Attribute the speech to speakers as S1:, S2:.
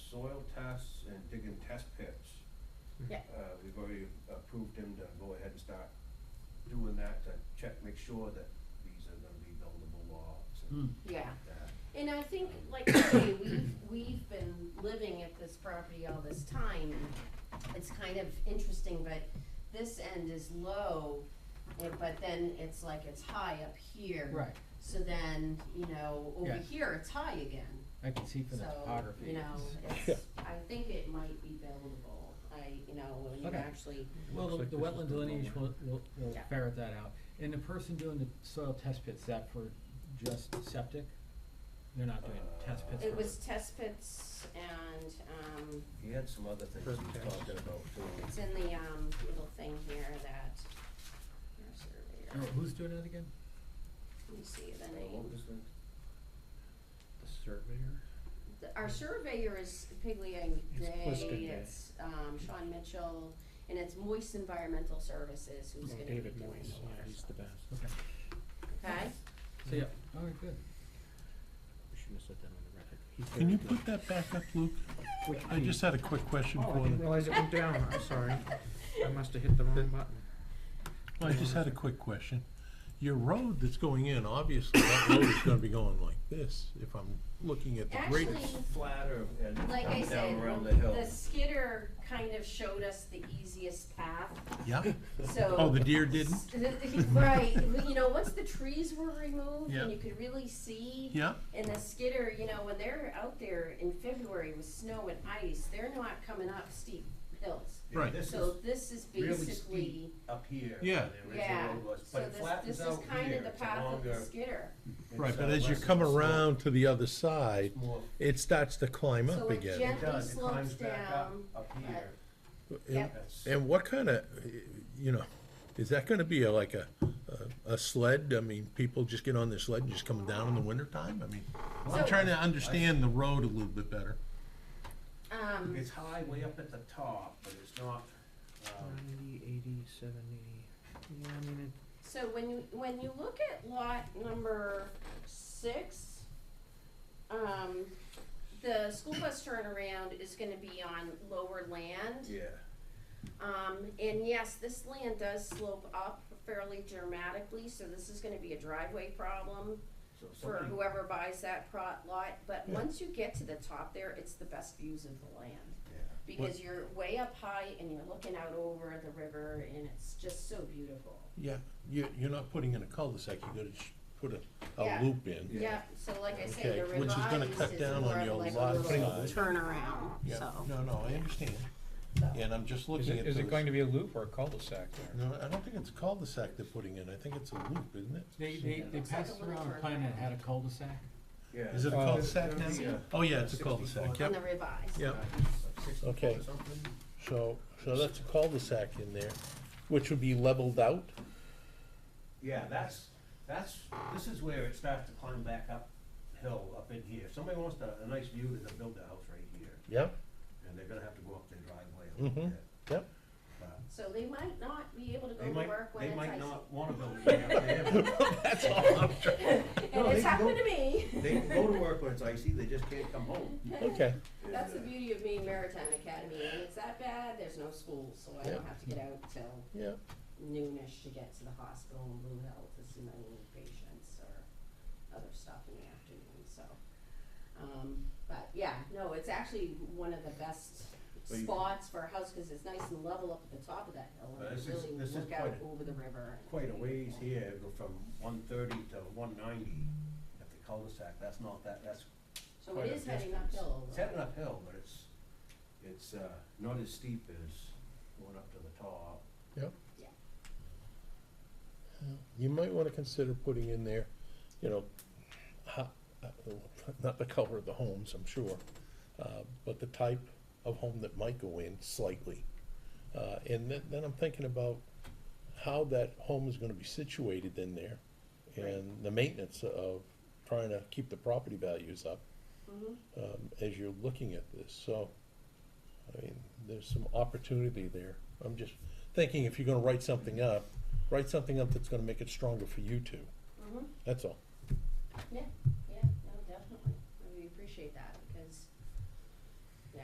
S1: soil tests and digging test pits.
S2: Yeah.
S1: Uh, we've already approved him to go ahead and start doing that to check, make sure that these are gonna be buildable lots
S3: Hmm.
S1: and
S2: yeah.
S1: that.
S2: And I think, like I say, we've, we've been living at this property all this time. It's kind of interesting, but this end is low, eh, but then it's like it's high up here.
S4: Right,
S2: So then, you know, over
S4: Yeah.
S2: here, it's high again.
S4: I can see from
S2: So,
S4: the topography.
S2: you know,
S4: it's-
S2: it's, I think it might be buildable. I, you know, when you
S4: Okay.
S2: actually,
S4: Well, the-
S1: Looks like
S4: the
S1: this is
S4: wetland
S1: the
S4: delineation
S1: lower.
S4: will, will, will
S2: Yeah.
S4: ferret that out. And the person doing the soil test pits, that for just septic? They're not doing
S1: Uh,
S4: test pits for.
S2: it was test pits and, um,
S1: He had some other things he was talking about too.
S2: it's in the, um, little thing here that, your
S4: Oh,
S2: surveyor,
S4: who's doing that again?
S2: let me see the
S1: Uh, What
S2: name.
S1: was the?
S5: The surveyor?
S2: The- Our surveyor is Pigliang Day,
S5: Pliskin Day.
S2: it's, um, Sean Mitchell, and it's Moist Environmental Services who's
S5: Oh,
S2: gonna be doing
S5: David
S2: the
S5: Moyes, yeah,
S2: water
S5: he's the
S2: stuff,
S5: best.
S4: Okay,
S2: okay?
S4: so yeah, all right, good.
S5: We shouldn't have said that on the record. He's
S3: Can
S5: very
S3: you
S5: good.
S3: put that back up, Luke?
S5: Which
S3: I
S5: page?
S3: just had a quick question
S5: Oh, I
S3: for
S5: didn't
S3: you.
S5: realize it went down, I'm sorry. I must have hit the wrong button.
S3: I just had a quick question. Your road that's going in, obviously, that road is gonna be going like this, if I'm looking at the
S2: Actually,
S3: greatest.
S1: Flatter and
S2: like I
S1: down
S2: said,
S1: around the hill.
S2: the skidder kind of showed us the easiest path,
S3: Yeah?
S2: so.
S3: Oh, the deer didn't?
S2: Right, you know, once the trees were removed
S3: Yeah.
S2: and you could really see,
S3: Yeah?
S2: and the skidder, you know, when they're out there in February with snow and ice, they're not coming up steep hills.
S1: Yeah,
S3: Right.
S1: This is
S2: So this is
S1: really
S2: basically,
S1: steep up here.
S3: Yeah.
S1: where the original
S2: yeah,
S1: road was,
S2: so
S1: but it
S2: this,
S1: flattens
S2: this is
S1: out
S2: kind
S1: here.
S2: of the
S1: It's a
S2: path of the
S1: longer-
S2: skidder.
S3: Right,
S1: it's,
S3: but
S1: uh,
S3: as you
S1: less of
S3: come
S1: a slope.
S3: around to the other side,
S1: It's more-
S3: it starts to climb
S2: So
S3: up
S2: it gen-
S3: again.
S1: It does, it
S2: slopes
S1: climbs back up,
S2: down,
S1: up
S2: but-
S1: here.
S3: And-
S2: Yep.
S1: That's-
S3: And what kinda, you know, is that gonna be a- like a, a- a sled? I mean, people just get on their sled and just come down in the wintertime? I mean,
S2: So-
S3: I'm trying to understand the road a little bit better.
S2: Um,
S1: It's high way up at the top, but it's not, um,
S5: Ninety, eighty, seventy, yeah, I mean, it,
S2: So when you, when you look at lot number six, um, the school bus turnaround is gonna be on lower land.
S1: yeah.
S2: Um, and yes, this land does slope up fairly dramatically, so this is gonna be a driveway problem
S1: So
S2: for
S1: somebody-
S2: whoever buys that prot lot. But
S3: Yeah.
S2: once you get to the top there, it's the best views of the land.
S1: Yeah.
S2: Because you're way up high and you're looking out over the river and it's just so beautiful.
S3: Yeah, you, you're not putting in a cul-de-sac, you're gonna sh- put a, a
S2: Yeah.
S3: loop in.
S2: Yeah, so like I say, the
S3: Okay, which is gonna
S2: revised
S3: cut
S2: is
S3: down
S2: more
S3: on
S2: of
S3: your
S2: like
S3: lot
S2: a little
S3: size.
S2: turnaround,
S3: Yeah.
S2: so.
S3: No, no, I understand, and I'm just
S5: is
S3: looking at
S5: it,
S3: those.
S5: is it going to be a loop or a cul-de-sac there?
S3: No, I don't think it's a cul-de-sac they're putting in, I think it's a loop, isn't it?
S4: They, they, they
S2: Looks like
S4: passed
S2: a little
S4: around a plan that
S2: turnaround.
S4: had a cul-de-sac.
S1: Yeah.
S3: Is it a
S5: Uh,
S3: cul-de-sac now?
S1: Yeah.
S3: Oh, yeah, it's a cul-de-sac,
S2: On
S3: yep,
S2: the revised.
S3: yep.
S1: Like 60
S3: Okay.
S1: or something.
S3: So, so that's a cul-de-sac in there, which would be leveled out?
S1: Yeah, that's, that's, this is where it starts to climb back up hill up in here. If somebody wants to- a nice view, they're gonna build their house right here,
S3: Yep,
S1: and they're gonna have to go up their driveway a little
S3: Mhm.
S1: bit.
S3: yep.
S1: But
S2: So they might not be able to go
S1: They
S2: to
S1: might,
S2: work when
S1: they
S2: it's ice.
S1: might not wanna build it up there.
S3: That's all I'm trying,
S2: And
S1: No, they can go-
S2: it's happened to me.
S1: They can go to work when it's icy, they just can't come home.
S3: okay.
S2: That's the
S1: Yeah.
S2: beauty of being Maritime Academy, and it's that bad, there's no school, so I don't
S3: Yeah.
S2: have to get out till
S3: Yeah,
S2: noonish to get to the hospital in Blue Hill to see my new patients or other stuff in the afternoon, so. Um, but yeah, no, it's actually one of the best
S1: Well, you-
S2: spots for a house, cause it's nice and level up at the top of that hill,
S1: Well,
S2: and
S1: this
S2: you
S1: is-
S2: really
S1: this is
S2: look out
S1: quite a-
S2: over the river. and
S1: Quite a ways
S2: beautiful.
S1: here, go from one thirty to one ninety at the cul-de-sac. That's not that, that's
S2: So
S1: quite
S2: it
S1: a
S2: is heading
S1: distance.
S2: uphill.
S1: It's heading uphill, but it's, it's, uh, not as steep as going up to the top.
S3: yep.
S2: Yeah.
S3: You might wanna consider putting in there, you know, ho- uh, not the color of the homes, I'm sure, uh, but the type of home that might go in slightly. Uh, and then, then I'm thinking about how that home is gonna be situated in there and the maintenance of trying to keep the property values up.
S2: Mhm.
S3: um, as you're looking at this, so, I mean, there's some opportunity there. I'm just thinking if you're gonna write something up, write something up that's gonna make it stronger for you two,
S2: Mhm.
S3: that's all.
S2: Yeah, yeah, no, definitely, we appreciate that.